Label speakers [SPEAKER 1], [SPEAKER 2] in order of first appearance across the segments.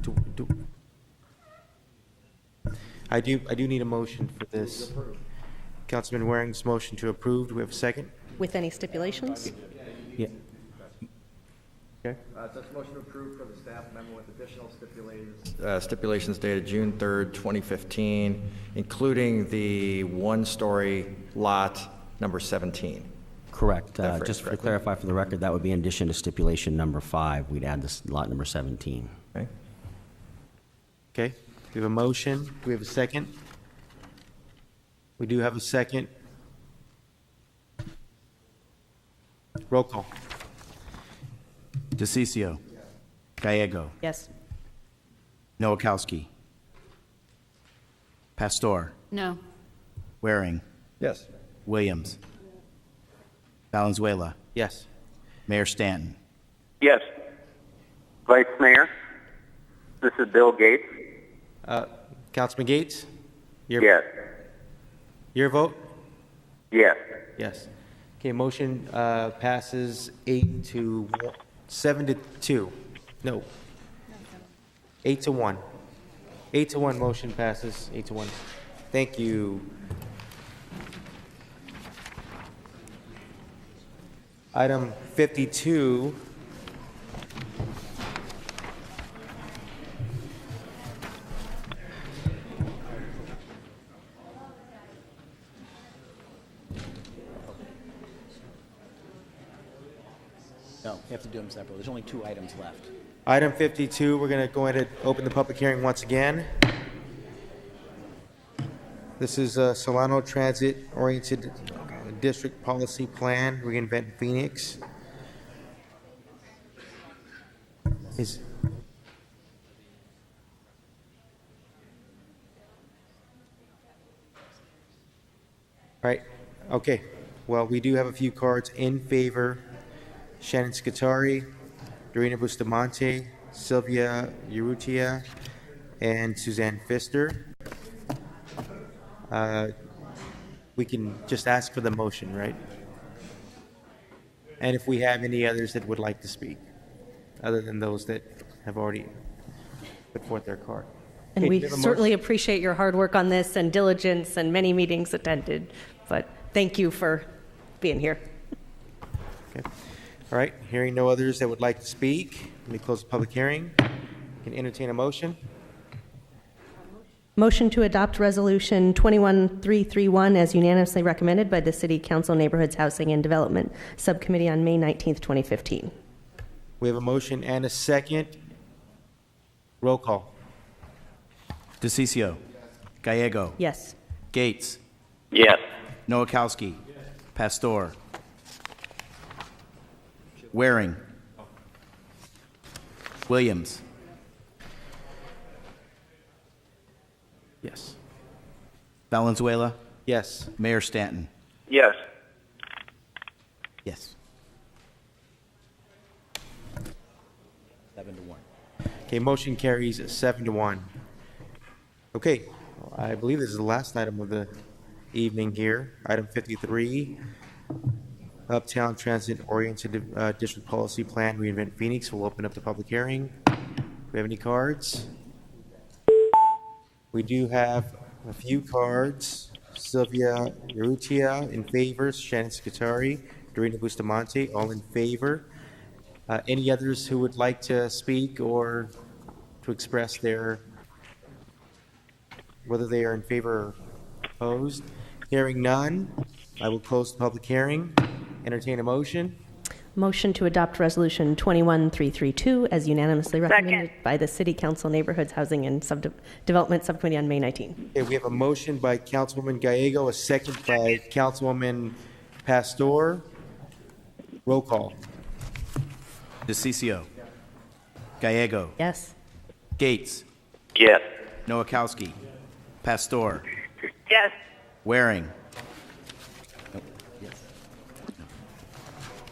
[SPEAKER 1] do, I do, I do need a motion for this. Councilman Waring's motion to approve, do we have a second?
[SPEAKER 2] With any stipulations?
[SPEAKER 1] Yeah. Okay,
[SPEAKER 3] Uh, Such motion approved for the staff memo with additional stipulations.
[SPEAKER 4] uh, stipulations dated June 3rd, 2015, including the one-story lot number 17.
[SPEAKER 5] Correct.
[SPEAKER 4] That
[SPEAKER 5] Uh,
[SPEAKER 4] phrase,
[SPEAKER 5] Just to
[SPEAKER 4] correct.
[SPEAKER 5] clarify for the record, that would be in addition to stipulation number five. We'd add this lot number 17.
[SPEAKER 4] Okay?
[SPEAKER 1] okay, we have a motion, do we have a second? We do have a second. Roll call.
[SPEAKER 6] DeCiccio. Gallego.
[SPEAKER 2] Yes.
[SPEAKER 6] Noakowski. Pastor.
[SPEAKER 7] No.
[SPEAKER 6] Waring.
[SPEAKER 4] Yes.
[SPEAKER 6] Williams. Valenzuela.
[SPEAKER 1] Yes.
[SPEAKER 6] Mayor Stanton.
[SPEAKER 8] Yes. Vice Mayor, this is Bill Gates.
[SPEAKER 1] Uh, Councilman Gates? your-
[SPEAKER 8] Yes.
[SPEAKER 1] Your vote?
[SPEAKER 8] Yes.
[SPEAKER 1] Yes. Okay, motion uh, passes eight to, one- seven to two. No. Eight to one. Eight to one, motion passes, eight to one. Thank you. Item 52.
[SPEAKER 9] No, we have to do them separately. There's only two items left.
[SPEAKER 1] Item 52, we're going to go ahead and open the public hearing once again. This is uh, Solano Transit Oriented uh, District Policy Plan, reinvent Phoenix. Is, right, okay. Well, we do have a few cards in favor. Shannon Scutari, Dorina Bustamante, Sylvia Urrutia, and Suzanne Pfister. Uh, We can just ask for the motion, right? And if we have any others that would like to speak, other than those that have already put forth their card.
[SPEAKER 2] And
[SPEAKER 1] Okay,
[SPEAKER 2] we
[SPEAKER 1] do you have a
[SPEAKER 2] certainly
[SPEAKER 1] motion?
[SPEAKER 2] appreciate your hard work on this and diligence and many meetings attended, but thank you for being here.
[SPEAKER 1] Okay. All right, hearing no others that would like to speak, let me close the public hearing. Can entertain a motion?
[SPEAKER 2] Motion to adopt Resolution 21331 as unanimously recommended by the City Council Neighborhoods Housing and Development Subcommittee on May 19th, 2015.
[SPEAKER 1] We have a motion and a second. Roll call.
[SPEAKER 6] DeCiccio. Gallego.
[SPEAKER 2] Yes.
[SPEAKER 6] Gates.
[SPEAKER 8] Yes.
[SPEAKER 6] Noakowski. Pastor. Waring. Williams.
[SPEAKER 1] Yes.
[SPEAKER 6] Valenzuela.
[SPEAKER 1] Yes.
[SPEAKER 6] Mayor Stanton.
[SPEAKER 8] Yes.
[SPEAKER 6] Yes.
[SPEAKER 9] Seven to one.
[SPEAKER 1] Okay, motion carries seven to one. Okay, I believe this is the last item of the evening here. Item 53, Uptown Transit Oriented uh, District Policy Plan Reinvent Phoenix. We'll open up the public hearing. Do we have any cards? We do have a few cards. Sylvia Yerutia in favor, Shannon Scutari, Dorina Bustamante, all in favor. Uh, Any others who would like to speak or to express their, whether they are in favor or opposed? Hearing none, I will close the public hearing, entertain a motion.
[SPEAKER 2] Motion to adopt Resolution 21332 as unanimously recommended by the City Council Neighborhoods Housing and Subde- Development Subcommittee on May 19.
[SPEAKER 1] Okay, we have a motion by Councilwoman Gallego, a second by Councilwoman Pastor. Roll call.
[SPEAKER 6] DeCiccio. Gallego.
[SPEAKER 2] Yes.
[SPEAKER 6] Gates.
[SPEAKER 8] Yes.
[SPEAKER 6] Noakowski. Pastor.
[SPEAKER 7] Yes.
[SPEAKER 6] Waring.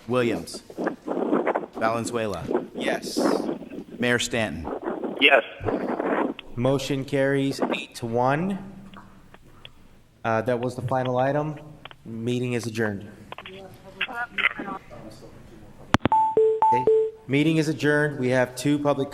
[SPEAKER 6] Williams. Valenzuela.
[SPEAKER 1] Yes.
[SPEAKER 6] Mayor Stanton.
[SPEAKER 8] Yes.
[SPEAKER 1] Motion carries eight to one. Uh, That was the final item. Meeting is adjourned. Okay. Meeting is adjourned. We have two public